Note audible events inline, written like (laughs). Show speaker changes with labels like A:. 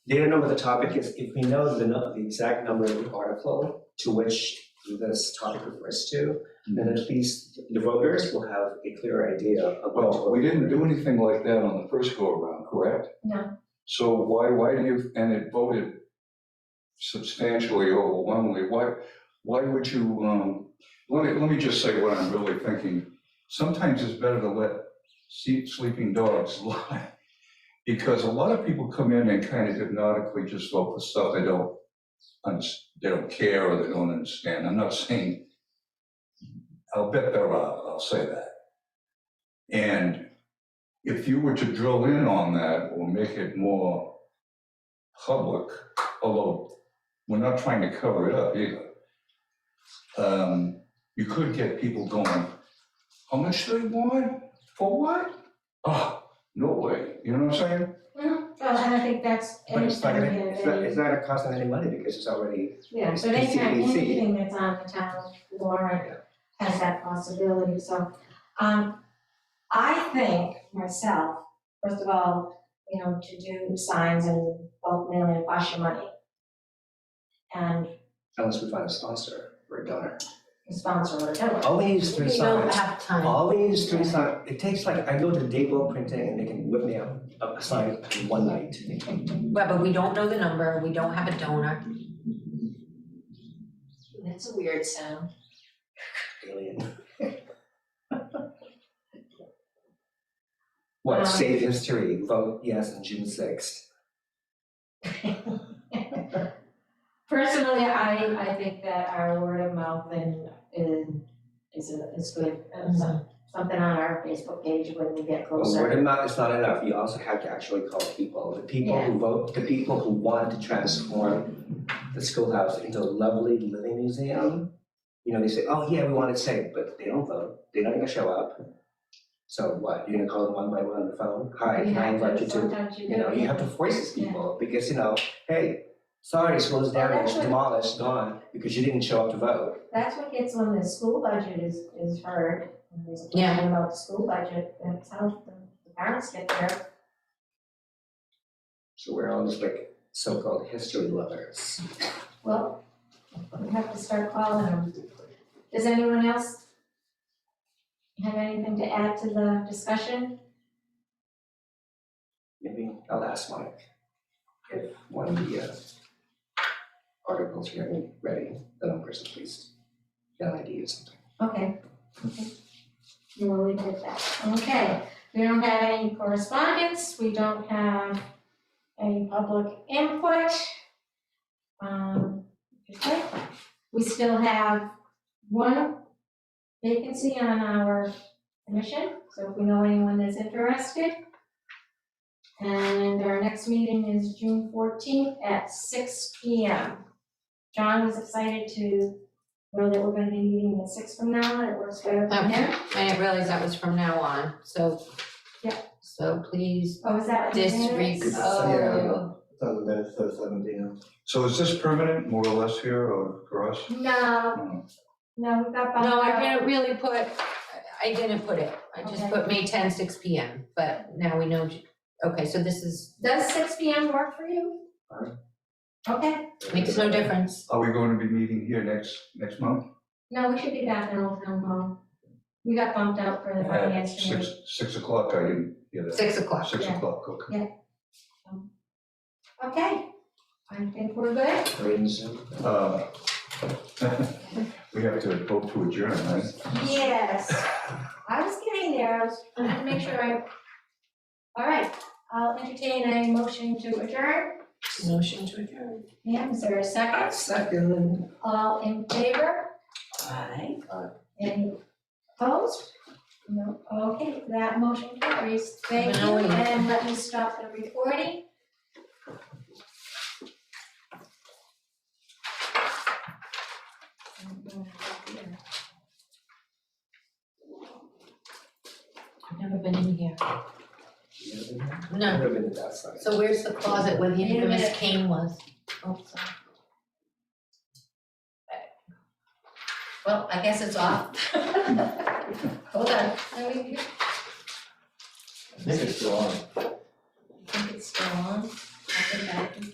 A: They don't know what the topic is, if we know the, nu- the exact number of the article to which this topic refers to, then at least the voters will have a clear idea of what to.
B: Well, we
A: vote
B: didn't
A: for.
B: do anything like that on the first go around, correct?
C: No.
B: So why, why do you, and it voted substantially overwhelmingly, why, why would you, um, let me, let me just say what I'm really thinking. Sometimes it's better to let se- sleeping dogs (laughs) lie. Because a lot of people come in and kind of hypnotically just vote for stuff they don't, unders- they don't care or they don't understand. I'm not saying, I'll bet there are, I'll say that. And if you were to drill in on that or make it more public, although we're not trying to cover it up either, um, you could get people going, how much do they want? For what? Oh, no way. You know what I'm saying?
C: Well, and I think that's
A: But it's not
C: anything
A: gonna,
C: that
A: it's not, it's
C: they,
A: not gonna cost them any money because it's already,
C: yeah, so they can, anything that's on the town warrant has that possibility, so. Um, I think myself, first of all, you know, to do signs and bulk mailing, wash your money. And
A: unless we find a sponsor or a donor.
C: sponsor or whatever.
A: All we need is three
D: We don't
A: signs,
D: have time.
A: all we need is three signs, it takes like, I go to Dayquil Printing and they can whip me up a a sign in one night.
D: Well, but we don't know the number, we don't have a donor.
C: That's a weird sound.
A: Alien.
C: Um,
A: (laughs) What, save history, vote yes on June sixth.
C: Personally, I, I think that our word of mouth and, and is, is good. Um, so- Something on our Facebook page when we get
A: But
C: closer.
A: word of mouth is not enough, you also have to actually call people, the people who vote, the people who want to transform the schoolhouse into a lovely living museum. You know, they say, oh yeah, we want it safe, but they don't vote, they don't even show up. So what, you're gonna call them one by one on the phone, hi, can I invite you to,
C: Sometimes you
A: you know, you have to force these people, because you know, hey, sorry, school is down, it's
C: Actually-
A: demolished, gone, because you didn't show up to vote.
C: That's what gets when the school budget is, is heard. and There's a
D: Yeah.
C: question about the school budget, that's how the the parents get there.
A: So we're all just like so-called history lovers.
C: Well, we have to start calling them. Does anyone else have anything to add to the discussion?
A: Maybe I'll ask Mike if one of the uh, articles are getting ready, the numbers at least, an idea or something.
C: Okay. We'll leave it at that. Okay, we don't have any correspondence, we don't have any public input. Um, okay. we still have one vacancy on our commission, so if we know anyone that's interested. And our next meeting is June fourteenth at six P M. John was excited to know that we're gonna be meeting at six from now, on. it works better for him.
D: I didn't realize that was from now on, so.
C: Yeah.
D: So please
C: Oh, is that? what you're doing?
D: disregard. Oh.
A: Yeah.
E: Seven minutes to seven P M.
B: So is this permanent, more or less here or for us?
C: No,
B: No.
C: no, we got.
D: No, I
C: bumped up.
D: didn't really put, I didn't put it, I just
C: Okay.
D: put May 10, 6 P M, but now we know, okay, so this is,
C: Does six P M work for you?
A: Fine.
C: Okay,
D: makes no difference.
B: Are we going to be meeting here next, next month?
C: no, we should be back in Old Town Hall. We got bumped out for the
B: At
C: finance
B: six,
C: committee.
B: six o'clock, I didn't hear that.
D: Six o'clock,
B: Six
C: yeah.
B: o'clock, okay.
C: Okay, I think we're good.
A: Brains.
B: Uh, (laughs) We have to vote to adjourn, right?
C: Yes, I was getting there, I was trying to make sure I. All right, I'll entertain a motion to adjourn.
D: motion to adjourn.
C: Yeah, is there a second?
A: Second.
C: All in favor?
D: Aye.
C: Any opposed? No, okay, that motion carries, thank you,
D: No.
C: and let me stop the recording. (laughs)
D: I've never been in here,
A: Would
D: no,
A: have been that side.
D: so where's the closet where the
C: Wait a
D: infamous
C: minute.
D: cane was? Oh, sorry. Well, I guess it's off. Hold on,
C: Let me-
E: I think it's still on.
C: I think it's still on, I think I can